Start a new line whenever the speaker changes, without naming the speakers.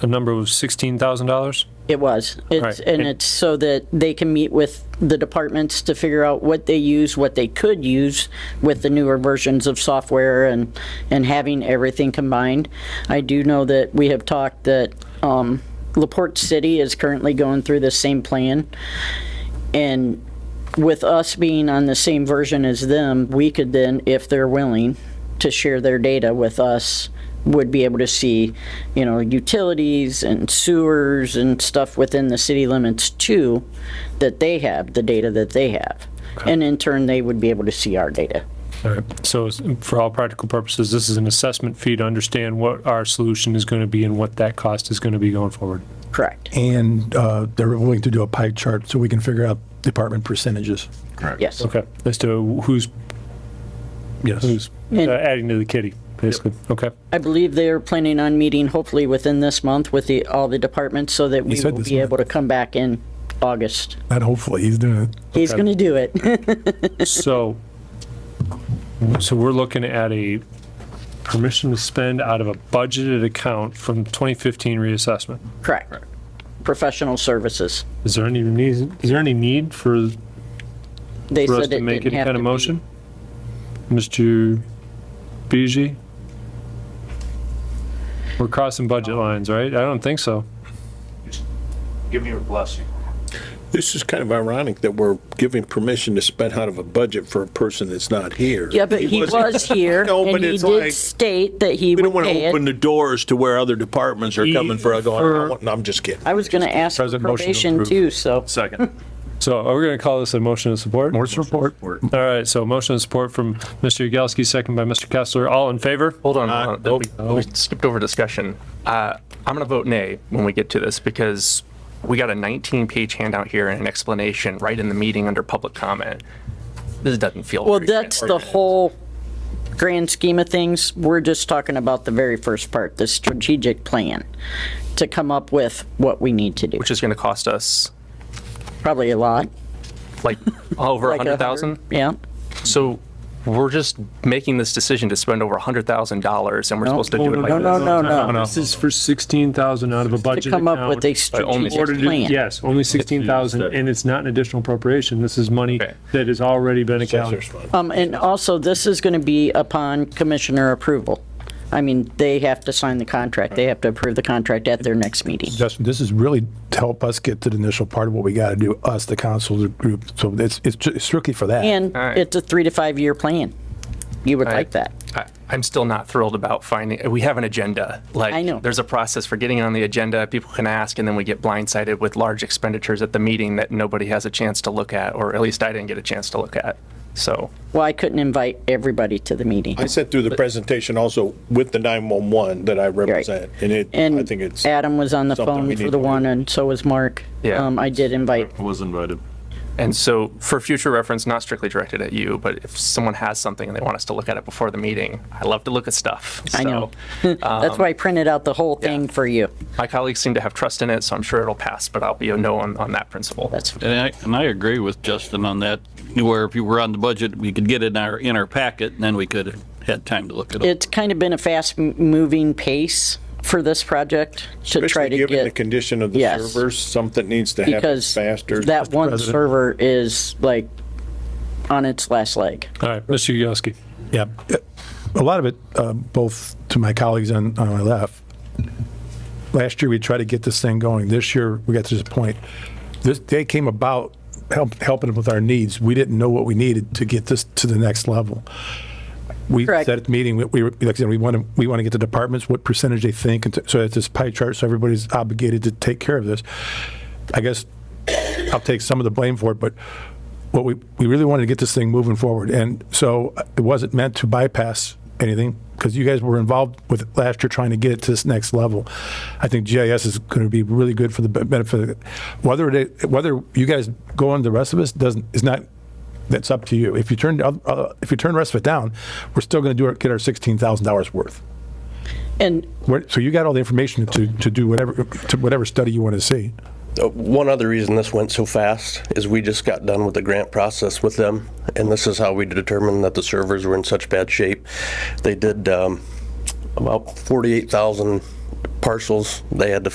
a number of $16,000?
It was. It's,
right.
and
And-
it's so that they can meet with the departments to figure out what they use, what they could use with the newer versions of software and, and having everything combined. I do know that we have talked that, um, LaPorte City is currently going through the same plan. And with us being on the same version as them, we could then, if they're willing to share their data with us, would be able to see, you know, utilities and sewers and stuff within the city limits too, that they have, the data that they have. And in turn, they would be able to see our data.
All right. So s- for all practical purposes, this is an assessment fee to understand what our solution is going to be and what that cost is going to be going forward.
Correct.
And uh, they're willing to do a pie chart so we can figure out department percentages.
Yes.
Okay. As to who's,
Yes.
who's uh,
And-
adding to the kitty, basically. Okay.
I believe they're planning on meeting hopefully within this month with the, all the departments so that we
said
will
this
be
month.
able to come back in August.
Not hopefully, he's doing it.
He's
Okay.
going to do it.
So, so we're looking at a permission to spend out of a budgeted account from 2015 reassessment.
Correct. Professional services.
Is there any need, is there any need for,
They
for us
said
to
it
make
didn't
any
have
kind
to
of
be-
motion? Mr. Beege? We're crossing budget lines, right? I don't think so.
Give me your blessing.
This is kind of ironic that we're giving permission to spend out of a budget for a person that's not here.
Yeah, but he was here,
No,
and
but
he
it's
did
like-
state that he
We don't
would
want
pay
to open
it.
the doors to where other departments are coming for,
For-
going, no, I'm just kidding.
I was gonna ask for
President, motion to
probation
approve.
too, so,
Second.
So are we going to call this a motion of support? All
support.
right, so motion of support from Mr. Yagowski, second by Mr. Kessler. All in favor?
Hold on,
Uh,
hold on. We- we skipped over discussion. Uh, I'm gonna vote nay when we get to this because we got a 19-page handout here and an explanation right in the meeting under public comment. This doesn't feel.
well,
very
that's the
transparent.
whole grand scheme of things. We're just talking about the very first part, the strategic plan, to come up with what we need to do.
Which is gonna cost us
Probably a lot.
like over a
like a hundred-
100,000.
Yeah,
So we're just making this decision to spend over $100,000 and we're supposed to do it
no,
like
no,
this.
no, no,
This is for 16,000 out of a budget
to
account.
come up with a
only
strategic
Ordered it-
plan.
Yes, only 16,000, and it's not an additional appropriation. This is money
Okay.
that has already been accounted.
Um, and also, this is gonna be upon commissioner approval. I mean, they have to sign the contract, they have to approve the contract at their next meeting.
Justin, this is really to help us get to the initial part of what we got to do, us, the council, the group. So it's, it's ju- strictly for that.
And
All right.
it's a three to five year plan. You would
right.
like that.
I- I'm still not thrilled about finding, we have an agenda. Like,
I know.
There's a process for getting on the agenda, people can ask, and then we get blindsided with large expenditures at the meeting that nobody has a chance to look at, or at least I didn't get a chance to look at. So,
Well, I couldn't invite everybody to the meeting.
I sent through the presentation also with the 911 that I represent, and it, I
And
think it's,
Adam was on the
something
phone
we
for
need
the
to do.
one, and so was Mark.
Yeah.
Um, I did invite,
I was invited.
and so for future reference, not strictly directed at you, but if someone has something and they want us to look at it before the meeting, I love to look at stuff.
I know.
So, uh,
That's why I printed out the whole thing for you.
My colleagues seem to have trust in it, so I'm sure it'll pass, but I'll be a no on, on that principle.
That's,
And I, and I agree with Justin on that, where if you were on the budget, we could get it in our, in our packet, and then we could have had time to look it up.
it's kind of been a fast-moving pace for this project to try
especially
to
given the
get,
condition of the
Yes.
servers, something needs to happen
because
faster.
that one server is like on its last leg.
All right, Mr. Yagowski.
Yeah. A lot of it, uh, both to my colleagues on, on my left, last year we tried to get this thing going. This year we got to this point. This, they came about help, helping with our needs. We didn't know what we needed to get this to the next level. We
Correct.
said at the meeting, we- we, were- like I said, we want to, we want to get the departments, what percentage they think. and So it's this pie chart, so everybody's obligated to take care of this. I guess I'll take some of the blame for it, but what we, we really wanted to get this thing moving forward. And so uh, it wasn't meant to bypass anything because you guys were involved with it last year trying to get it to this next level. I think GIS is going to be really good for the be- benefit. of it. Whether it, whether you guys go on the rest of us doesn't, is not, that's up to you. If you turn, the oth- uh, if you turn the rest of it down, we're still going to do our, get our $16,000 worth.
And
Where- So you got all the information to, to do whatever, to whatever study you want to see.
uh, One other reason this went so fast is we just got done with the grant process with them, and this is how we determined that the servers were in such bad shape. They did um, about 48,000 parcels they had to